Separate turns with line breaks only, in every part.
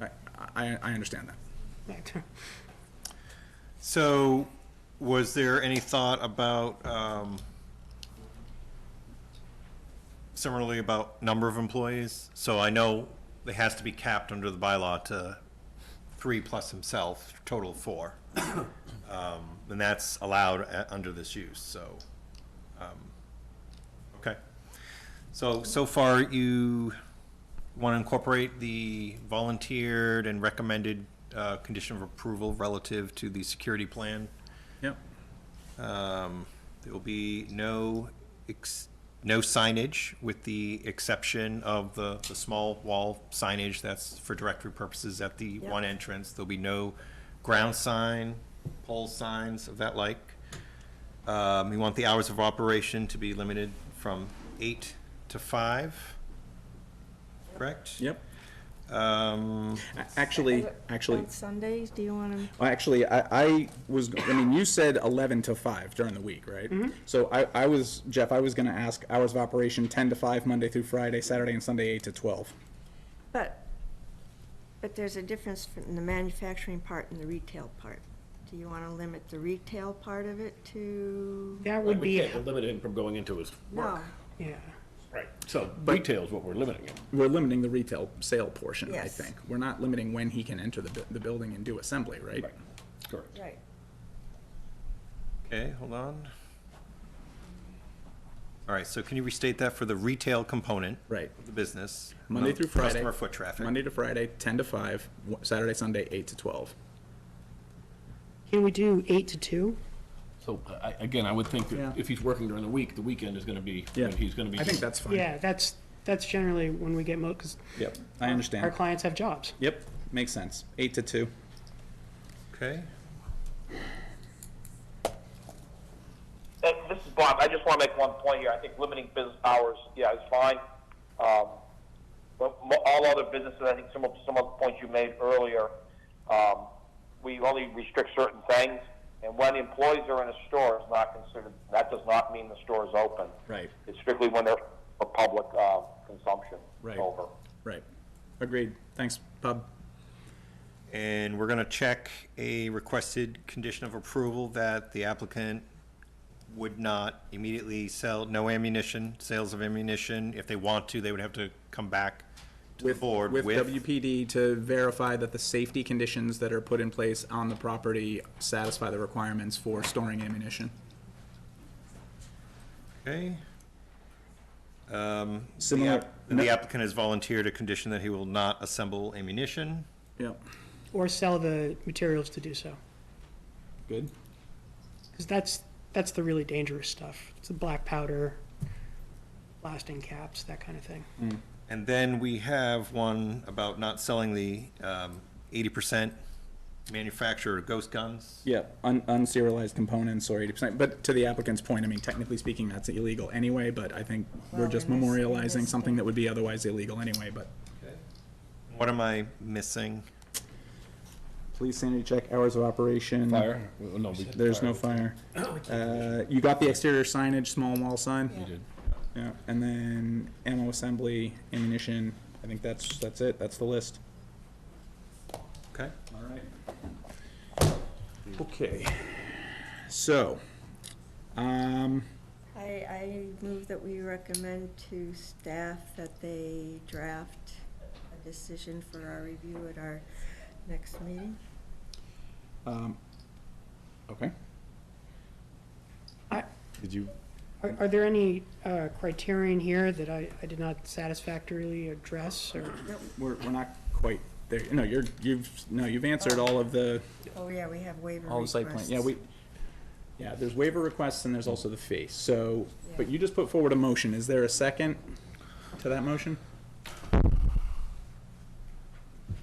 I, I, I understand that.
So, was there any thought about, um, similarly about number of employees? So I know it has to be capped under the bylaw to three plus himself, total of four. Um, and that's allowed a- under this use, so, um, okay. So, so far you want to incorporate the volunteered and recommended, uh, condition of approval relative to the security plan?
Yep.
Um, There will be no, ex- no signage with the exception of the, the small wall signage that's for directory purposes at the one entrance. There'll be no ground sign, pole signs of that like. Um, You want the hours of operation to be limited from eight to five, correct?
Yep.
Um,
A- Actually, actually,
On Sundays, do you want to?
well, actually, I, I was, I mean, you said eleven to five during the week, right? So I, I was, Jeff, I was gonna ask hours of operation ten to five, Monday through Friday, Saturday and Sunday, eight to twelve.
But, but there's a difference in the manufacturing part and the retail part. Do you want to limit the retail part of it to?
That
Like,
would
We
be,
can't limit him from going into his
No,
work.
yeah.
Right. So retail's what we're limiting him.
We're limiting the retail sale portion, I
Yes.
think. We're not limiting when he can enter the, bu- the building and do assembly, right?
Correct.
right.
Okay, hold on. All right, so can you restate that for the retail component?
Right.
of The business.
Monday
um,
through Friday.
Customer foot traffic.
Monday to Friday, ten to five, wa- Saturday, Sunday, eight to twelve.
Can we do eight to two?
So I, again, I would think
Yeah.
that if he's working during the week, the weekend is gonna be, when he's gonna be.
I think that's fine.
Yeah, that's, that's generally when we get most, because
Yep, I understand.
our clients have jobs.
Yep, makes sense. Eight to two.
Okay,
And this is Bob. I just want to make one point here. I think limiting business hours, yeah, is fine. Um, but mo- all other businesses, I think some of some of the points you made earlier, um, we only restrict certain things. And when employees are in a store, it's not considered. That does not mean the store is open.
Right.
It's strictly when they're for public uh, consumption.
Right.
Over.
Right. Agreed. Thanks, Bob.
and we're gonna check a requested condition of approval that the applicant would not immediately sell, no ammunition, sales of ammunition. If they want to, they would have to come back to the board
With
with.
WPD to verify that the safety conditions that are put in place on the property satisfy the requirements for storing ammunition.
Okay. Um, the
Similar-
app- and The applicant has volunteered a condition that he will not assemble ammunition.
Yep.
Or sell the materials to do so.
Good.
Because that's, that's the really dangerous stuff. It's the black powder, blasting caps, that kind of thing.
And then we have one about not selling the um, eighty percent manufacturer ghost guns.
Yeah, un- unserialized components or eighty percent, but to the applicant's point, I mean, technically speaking, that's illegal anyway, but I think we're
Well,
just
in this- in
memorializing
this
something
thing.
that would be otherwise illegal anyway, but.
What am I missing?
Police sanity check, hours of operation.
Fire? Well, No, we.
There's no fire. Uh, you got the exterior signage, small wall sign?
did.
Yeah, and then ammo assembly, ammunition, I think that's, that's it, that's the list.
Okay.
All right. Okay, so, um,
I, I move that we recommend to staff that they draft a decision for our review at our next meeting.
um, okay.
Did you?
Are, are there any uh, criterion here that I, I did not satisfactorily address or?
We're, we're not quite there, no, you're, you've, no, you've answered all of the,
Oh, yeah, we have waiver
all the
requests.
site plan, yeah, we, yeah, there's waiver requests and there's also the fee, so, but you just put forward a motion, is there a second to that motion?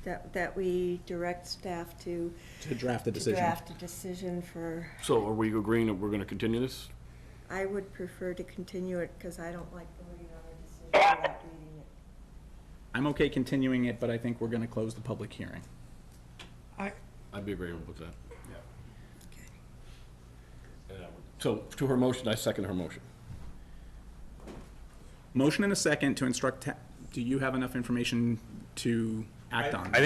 That, that we direct staff to
To draft a
to
decision?
draft a decision for,
So are we agreeing that we're gonna continue this?
I would prefer to continue it because I don't like voting on a decision without reading it.
I'm okay continuing it, but I think we're gonna close the public hearing.
I,
I'd be agreeable with that. Yeah. And I would- So to her motion, I second her motion.
Motion and a second to instruct, ta- do you have enough information to act on?
I